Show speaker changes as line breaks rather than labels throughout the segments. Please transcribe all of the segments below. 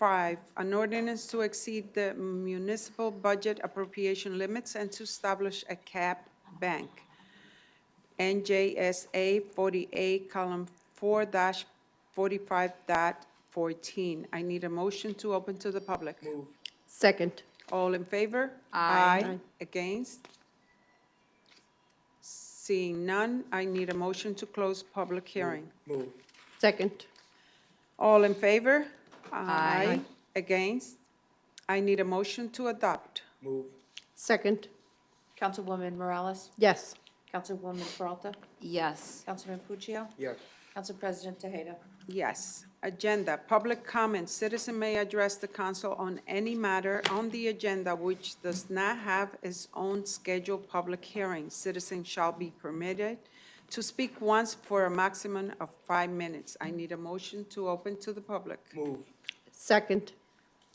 Five, an ordinance to exceed the municipal budget appropriation limits and to establish a cap bank. NJSA 48, column 4 dash 45 dot 14. I need a motion to open to the public.
Second.
All in favor?
Aye. Aye.
Against? Seeing none, I need a motion to close public hearing.
Move.
Second.
All in favor?
Aye.
Against? I need a motion to adopt.
Move.
Second.
Councilwoman Morales?
Yes.
Councilwoman Peralta?
Yes.
Councilman Puccio?
Yes.
Council President Tejeda?
Yes. Agenda, public comment. Citizen may address the council on any matter on the agenda which does not have its own scheduled public hearing. Citizen shall be permitted to speak once for a maximum of five minutes. I need a motion to open to the public.
Move.
Second.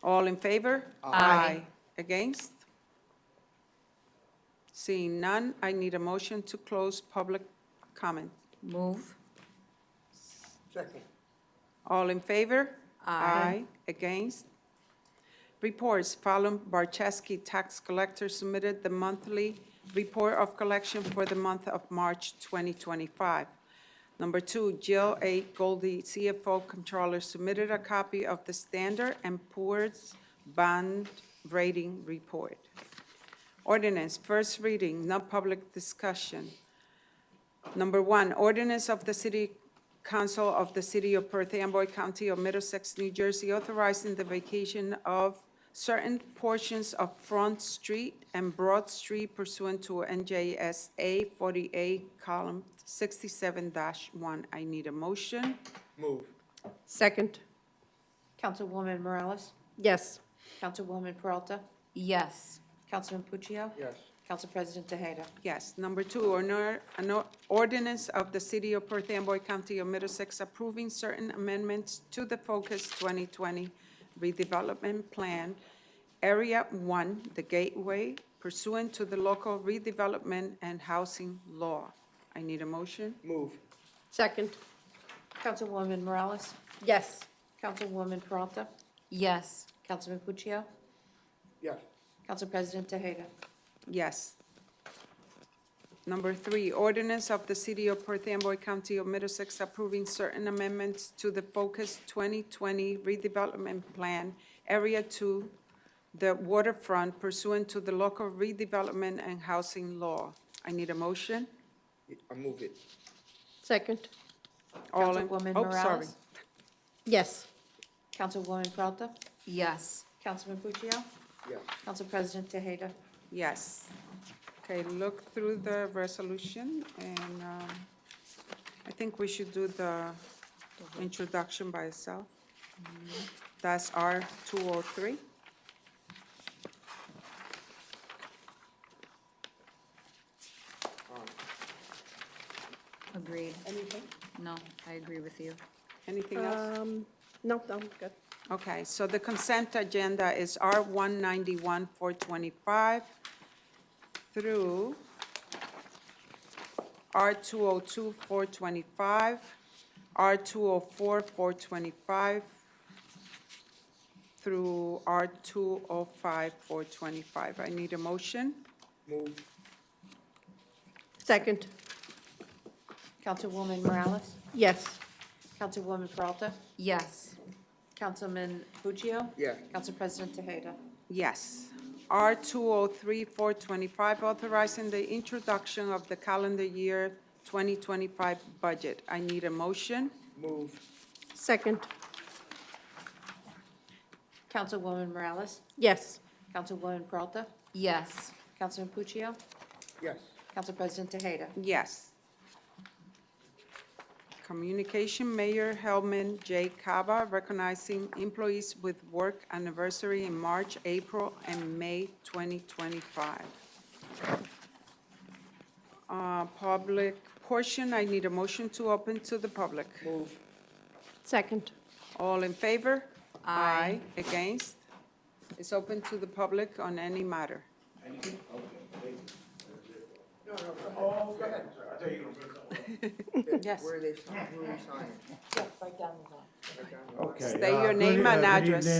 All in favor? Aye. Against? Seeing none, I need a motion to close public comment.
Move.
Second.
All in favor? Aye. Against? Reports, Fallon Barczewski, tax collector, submitted the monthly report of collection for the month of March 2025. Number two, Jill A. Goldie, CFO Controller, submitted a copy of the Standard and Poor's Bond Rating Report. Ordinance, first reading, no public discussion. Number one, ordinance of the City Council of the City of Perth Amboy County of Middlesex, New Jersey, authorizing the vacation of certain portions of Front Street and Broad Street pursuant to NJSA 48, column 67-1. I need a motion.
Move.
Second.
Councilwoman Morales?
Yes.
Councilwoman Peralta?
Yes.
Councilman Puccio?
Yes.
Council President Tejeda?
Yes. Number two, an or- an or- ordinance of the City of Perth Amboy County of Middlesex approving certain amendments to the Focus 2020 redevelopment plan, Area 1, the Gateway, pursuant to the local redevelopment and housing law. I need a motion.
Move.
Second.
Councilwoman Morales?
Yes.
Councilwoman Peralta?
Yes.
Councilman Puccio?
Yes.
Council President Tejeda?
Yes. Number three, ordinance of the City of Perth Amboy County of Middlesex approving certain amendments to the Focus 2020 redevelopment plan, Area 2, the waterfront pursuant to the local redevelopment and housing law. I need a motion.
I move it.
Second.
All in-
Councilwoman
oh, sorry.
Morales?
Yes.
Councilwoman Peralta?
Yes.
Councilman Puccio?
Yes.
Council President Tejeda?
Yes. Okay, look through the resolution, and um, I think we should do the introduction by itself. That's R two oh three.
Agreed. Anything? No, I agree with you.
Anything else?
Um, no, I'm good.
Okay, so the consent agenda is R one ninety-one, four twenty-five through R two oh two, four twenty-five, R two oh four, four twenty-five, through R two oh five, four twenty-five. I need a motion.
Move.
Second.
Councilwoman Morales?
Yes.
Councilwoman Peralta?
Yes.
Councilman Puccio?
Yes.
Council President Tejeda?
Yes. R 203425, authorizing the introduction of the calendar year 2025 budget. I need a motion.
Move.
Second.
Councilwoman Morales?
Yes.
Councilwoman Peralta?
Yes.
Councilman Puccio?
Yes.
Council President Tejeda?
Yes. Communication, Mayor Hellman J. Cava, recognizing employees with work anniversary in March, April, and May 2025. Uh, Public portion, I need a motion to open to the public.
Move.
Second.
All in favor? Aye. Against? It's open to the public on any matter.
Yes.
Where are they, sign- where are we signing?
Yes, right down the line.
Right down there.
Okay.
State your
uh,
name
good- uh,
and
good
address.
evening.